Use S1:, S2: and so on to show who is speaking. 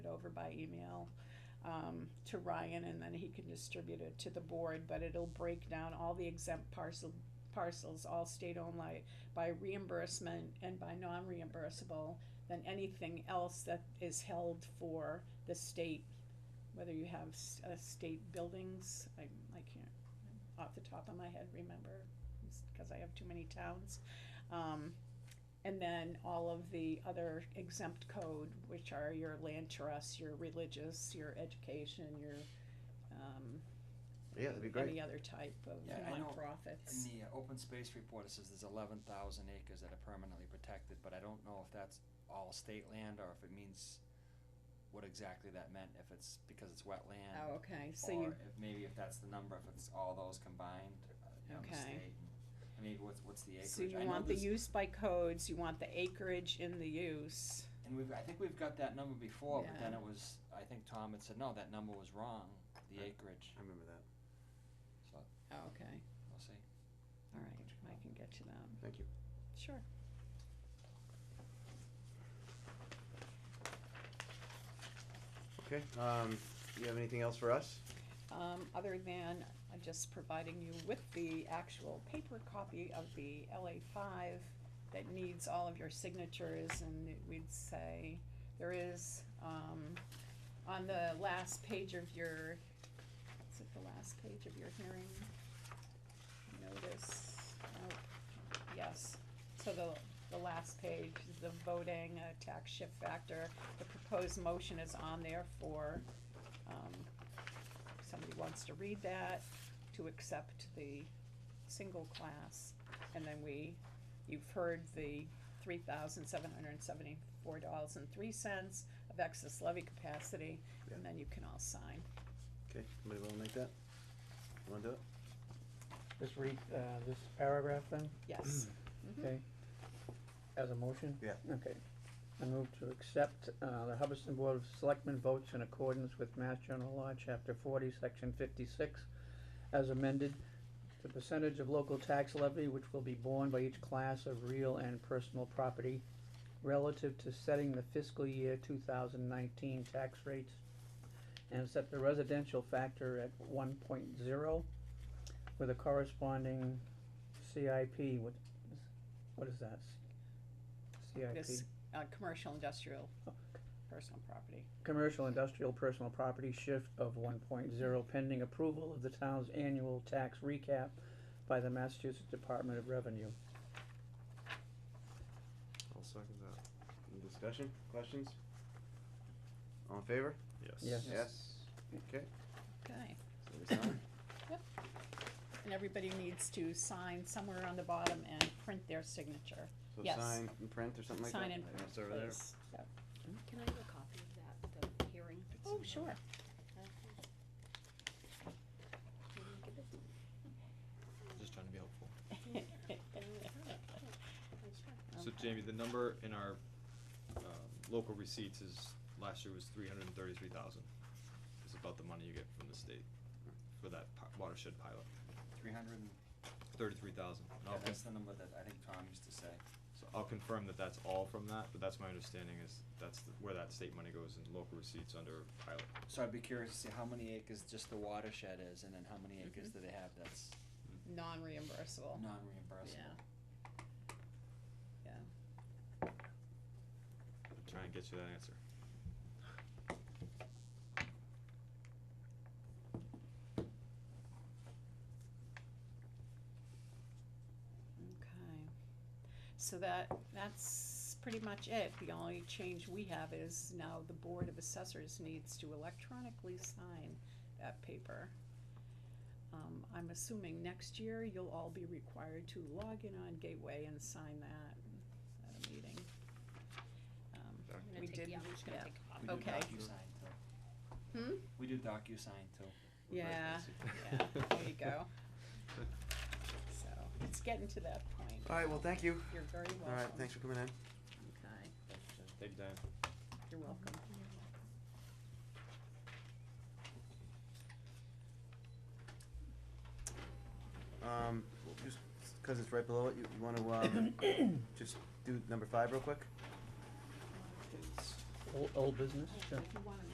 S1: over by email um, to Ryan and then he can distribute it to the board, but it'll break down all the exempt parcel, parcels, all state-owned li- by reimbursement and by non-reimbursable than anything else that is held for the state, whether you have s- uh, state buildings, I, I can't, off the top of my head, remember, because I have too many towns. Um, and then all of the other exempt code, which are your land trusts, your religious, your education, your, um,
S2: Yeah, that'd be great.
S1: any other type of
S3: Yeah, I know. In
S1: nonprofits.
S3: the uh, open space report, it says there's eleven thousand acres that are permanently protected, but I don't know if that's all state land or if it means what exactly that meant, if it's because it's wetland.
S1: Oh, okay, so you,
S3: Or if, maybe if that's the number, if it's all those combined, uh, you know, the
S1: Okay.
S3: state, and- and maybe what's, what's the acreage?
S1: so you
S3: I know
S1: want the
S3: there's-
S1: use by codes, you want the acreage in the use.
S3: And we've, I think we've got that number before, but then
S1: Yeah.
S3: it was, I think Tom had said, no, that number was wrong, the
S2: Right.
S3: acreage,
S2: I remember that.
S3: so,
S1: Oh, okay,
S3: we'll see.
S1: all right, I can get to that,
S2: Thank you.
S1: sure.
S2: Okay, um, you have anything else for us?
S1: um, other than uh, just providing you with the actual paper copy of the LA five that needs all of your signatures, and it- we'd say, there is, um, on the last page of your, is it the last page of your hearing? Notice, oh, yes, so the, the last page, the voting, uh, tax shift factor, the proposed motion is on there for, um, if somebody wants to read that, to accept the single class. And then we, you've heard the three thousand seven hundred and seventy-four dollars and three cents of excess levy capacity, and then you can all sign.
S2: Okay, somebody wanna make that? You Wanna do it?
S4: Just read, uh, this paragraph then,
S1: Yes. Mhm.
S4: okay? As a motion?
S2: Yeah.
S4: Okay. I move to accept, uh, the Hubbardston Board of Selectmen votes in accordance with Mass General Law, Chapter forty, Section fifty-six, as amended, the percentage of local tax levy which will be borne by each class of real and personal property relative to setting the fiscal year two thousand nineteen tax rates and set the residential factor at one point zero with a corresponding CIP, what, what is that?
S1: This,
S4: CIP,
S1: uh, commercial, industrial,
S4: Oh.
S1: personal property.
S4: commercial industrial personal property shift of one point zero pending approval of the town's annual tax recap by the Massachusetts Department of Revenue.
S2: I'll second that. Any discussion, questions? All in favor?
S4: Yes.
S2: Yes. Okay,
S1: Okay.
S2: so we sign.
S1: And everybody needs to sign somewhere on the bottom and print their signature.
S2: So
S1: Yes.
S2: sign and print or something like that?
S1: Sign and
S2: Yeah,
S1: print,
S2: It's over there.
S1: please. Yep.
S5: Can I have a copy of that, the hearing?
S1: Oh, sure.
S6: Just trying to be helpful. So
S1: Okay.
S6: Jamie, the number in our um, local receipts is, last year was three hundred and thirty-three thousand. It's about the money you get from the state for that pi- watershed pilot,
S3: Three hundred and,
S6: thirty-three thousand. And I'll,
S3: that's
S6: con-
S3: the number that I think Tom used to say.
S6: so I'll confirm that that's all from that, but that's my understanding is that's the- where that state money goes in local receipts under pilot.
S3: So I'd be curious to see how many acres just the watershed is, and then how many acres do they have that's
S1: Non-reimbursable.
S3: non-reimbursable?
S1: Yeah,
S6: Try and get you that answer.
S1: okay. So that, that's pretty much it. The only change we have is now the Board of Assessors needs to electronically sign that paper. Um, I'm assuming next year you'll all be required to log in on Gateway and sign that at a meeting. Um,
S6: Sorry.
S5: I'm
S1: We
S5: gonna
S1: did-
S5: take, yeah, I'm just gonna
S1: yeah.
S5: take a copy.
S3: We do
S1: Okay.
S3: DocuSign too.
S1: Hmm?
S3: We do DocuSign too.
S6: We're very
S1: Yeah,
S6: fancy.
S1: yeah, there you go. So, it's getting to that point.
S2: All right, well, thank you.
S1: You're very welcome.
S2: All right, thanks for coming in.
S1: Okay,
S6: Thank you, Dan.
S1: you're welcome.
S2: Um, just, cause it's right below it, you, you wanna, um, just do number five real quick?
S4: Old, old business, sure.
S5: If you wanna